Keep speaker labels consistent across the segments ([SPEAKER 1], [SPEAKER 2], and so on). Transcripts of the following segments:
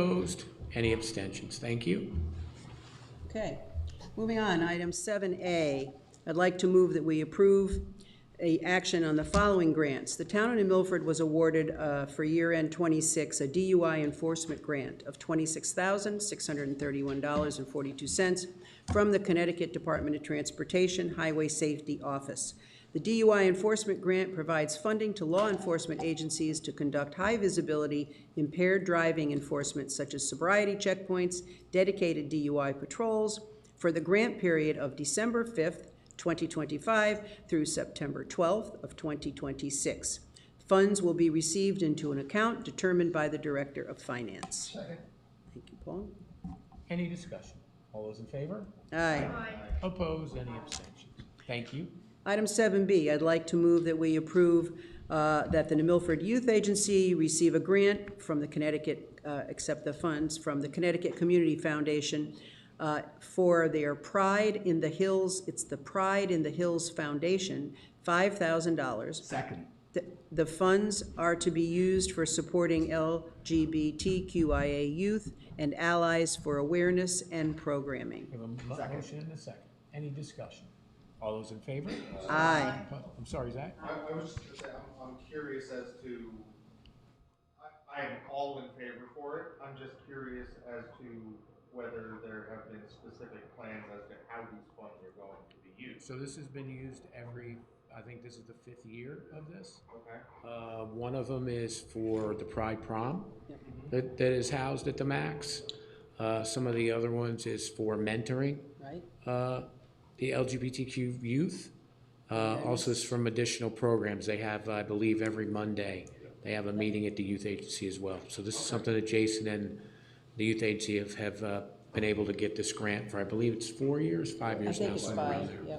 [SPEAKER 1] Opposed? Any abstentions? Thank you.
[SPEAKER 2] Okay, moving on, item 7A. I'd like to move that we approve a action on the following grants. The town in Milford was awarded uh, for year-end '26 a DUI enforcement grant of $26,631.42 from the Connecticut Department of Transportation Highway Safety Office. The DUI enforcement grant provides funding to law enforcement agencies to conduct high-visibility impaired driving enforcement such as sobriety checkpoints, dedicated DUI patrols for the grant period of December 5th, 2025 through September 12th of 2026. Funds will be received into an account determined by the Director of Finance. Thank you, Paul.
[SPEAKER 1] Any discussion? All those in favor?
[SPEAKER 2] Aye.
[SPEAKER 1] Opposed? Any abstentions? Thank you.
[SPEAKER 2] Item seven B, I'd like to move that we approve uh, that the New Milford Youth Agency receive a grant from the Connecticut, uh, accept the funds from the Connecticut Community Foundation uh, for their Pride in the Hills, it's the Pride in the Hills Foundation, five thousand dollars.
[SPEAKER 3] Second.
[SPEAKER 2] The funds are to be used for supporting LGBTQIA youth and allies for awareness and programming.
[SPEAKER 1] We have a mo- motion and a second. Any discussion? All those in favor?
[SPEAKER 2] Aye.
[SPEAKER 1] Oppo- I'm sorry, Zach?
[SPEAKER 4] I, I was just gonna say, I'm, I'm curious as to, I, I am all in favor for it, I'm just curious as to whether there have been specific plans as to how these funds are going to be used,
[SPEAKER 1] So this has been used every, I think this is the fifth year of this.
[SPEAKER 4] okay?
[SPEAKER 1] Uh, One of them is for the Pride Prom that that is housed at the Max. Uh, Some of the other ones is for mentoring.
[SPEAKER 2] Right?
[SPEAKER 1] uh, the LGBTQ youth. Uh, Also is from additional programs. They have, I believe, every Monday, they have a meeting at the youth agency as well. So this is something that Jason and the youth agency have, have uh, been able to get this grant for, I believe it's four years, five years now. somewhere around there.
[SPEAKER 2] yeah.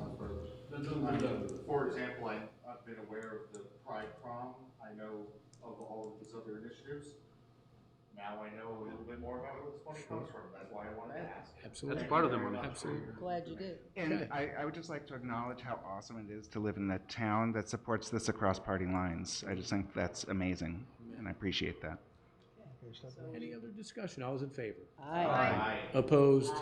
[SPEAKER 4] For example, I, I've been aware of the Pride Prom, I know of all of these other initiatives. Now I know a little bit more about where this money comes from, that's why I wanted to ask.
[SPEAKER 1] Absolutely.
[SPEAKER 4] part of the money.
[SPEAKER 1] Absolutely.
[SPEAKER 2] Glad you did.
[SPEAKER 3] And I, I would just like to acknowledge how awesome it is to live in a town that supports this across party lines. I just think that's amazing, and I appreciate that.
[SPEAKER 1] Any other discussion? All those in favor?
[SPEAKER 2] Aye.
[SPEAKER 1] Opposed?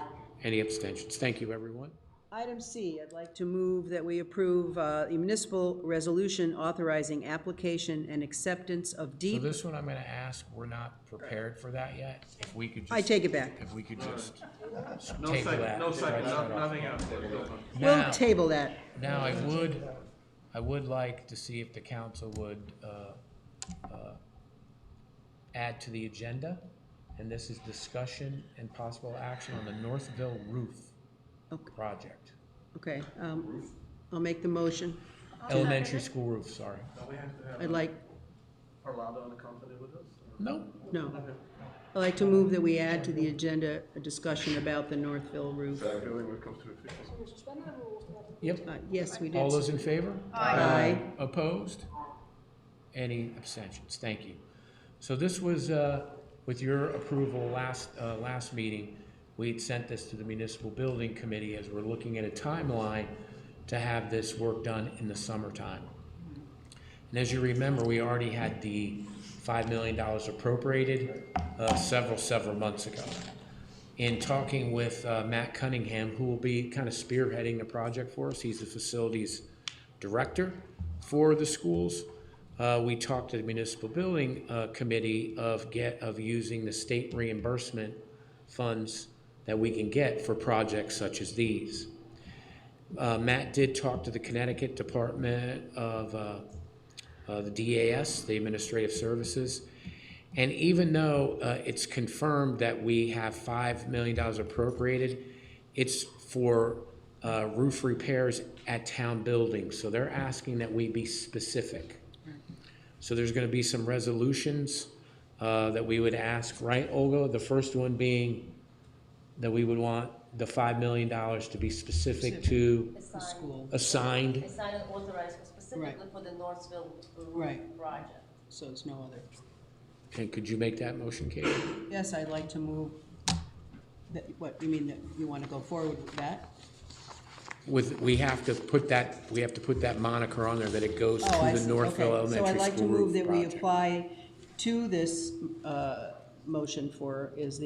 [SPEAKER 1] Any abstentions? Thank you, everyone.
[SPEAKER 2] Item C, I'd like to move that we approve uh, a municipal resolution authorizing application and acceptance of
[SPEAKER 1] So
[SPEAKER 2] deep,
[SPEAKER 1] this one I'm going to ask, we're not prepared for that yet. If we could just.
[SPEAKER 2] I take it back.
[SPEAKER 1] If we could just. No second, no
[SPEAKER 4] nothing else.
[SPEAKER 2] We'll table that.
[SPEAKER 1] Now, I would, I would like to see if the council would uh, uh, add to the agenda, and this is discussion and possible action on the Northville roof
[SPEAKER 2] Okay.
[SPEAKER 1] project.
[SPEAKER 2] Okay, um, I'll make the motion.
[SPEAKER 1] Elementary school roof, sorry.
[SPEAKER 2] I'd like,
[SPEAKER 5] Orlando and the company with us?
[SPEAKER 1] No,
[SPEAKER 2] no. I'd like to move that we add to the agenda a discussion about the Northville roof.
[SPEAKER 1] yep.
[SPEAKER 2] Uh, Yes, we did.
[SPEAKER 1] All those in favor?
[SPEAKER 2] Aye.
[SPEAKER 1] Opposed? Any abstentions? Thank you. So this was, uh, with your approval last, uh, last meeting, we had sent this to the Municipal Building Committee as we're looking at a timeline to have this work done in the summertime. And as you remember, we already had the $5 million appropriated uh, several, several months ago. In talking with uh, Matt Cunningham, who will be kind of spearheading the project for us, he's the facilities director for the schools, uh, we talked to the municipal building uh, committee of get, of using the state reimbursement funds that we can get for projects such as these. Uh, Matt did talk to the Connecticut Department of uh, uh, the DAS, the Administrative Services. And even though uh, it's confirmed that we have $5 million appropriated, it's for uh, roof repairs at town buildings. So they're asking that we be specific. So there's going to be some resolutions uh, that we would ask, right, Olga? The first one being that we would want the $5 million to be specific to
[SPEAKER 6] assigned,
[SPEAKER 1] assigned.
[SPEAKER 6] assigned and authorized for specifically for the Northville
[SPEAKER 2] Right.
[SPEAKER 6] roof project.
[SPEAKER 2] So it's no other.
[SPEAKER 1] And could you make that motion, Katie?
[SPEAKER 2] Yes, I'd like to move, that, what, you mean that you want to go forward with that?
[SPEAKER 1] With, we have to put that, we have to put that moniker on there that it goes to
[SPEAKER 2] Oh, I
[SPEAKER 1] the
[SPEAKER 2] see.
[SPEAKER 1] Northville
[SPEAKER 2] Okay. So I'd
[SPEAKER 1] Elementary
[SPEAKER 2] like to
[SPEAKER 1] School
[SPEAKER 2] move
[SPEAKER 1] roof
[SPEAKER 2] that we
[SPEAKER 1] project.
[SPEAKER 2] apply to this uh, motion for is the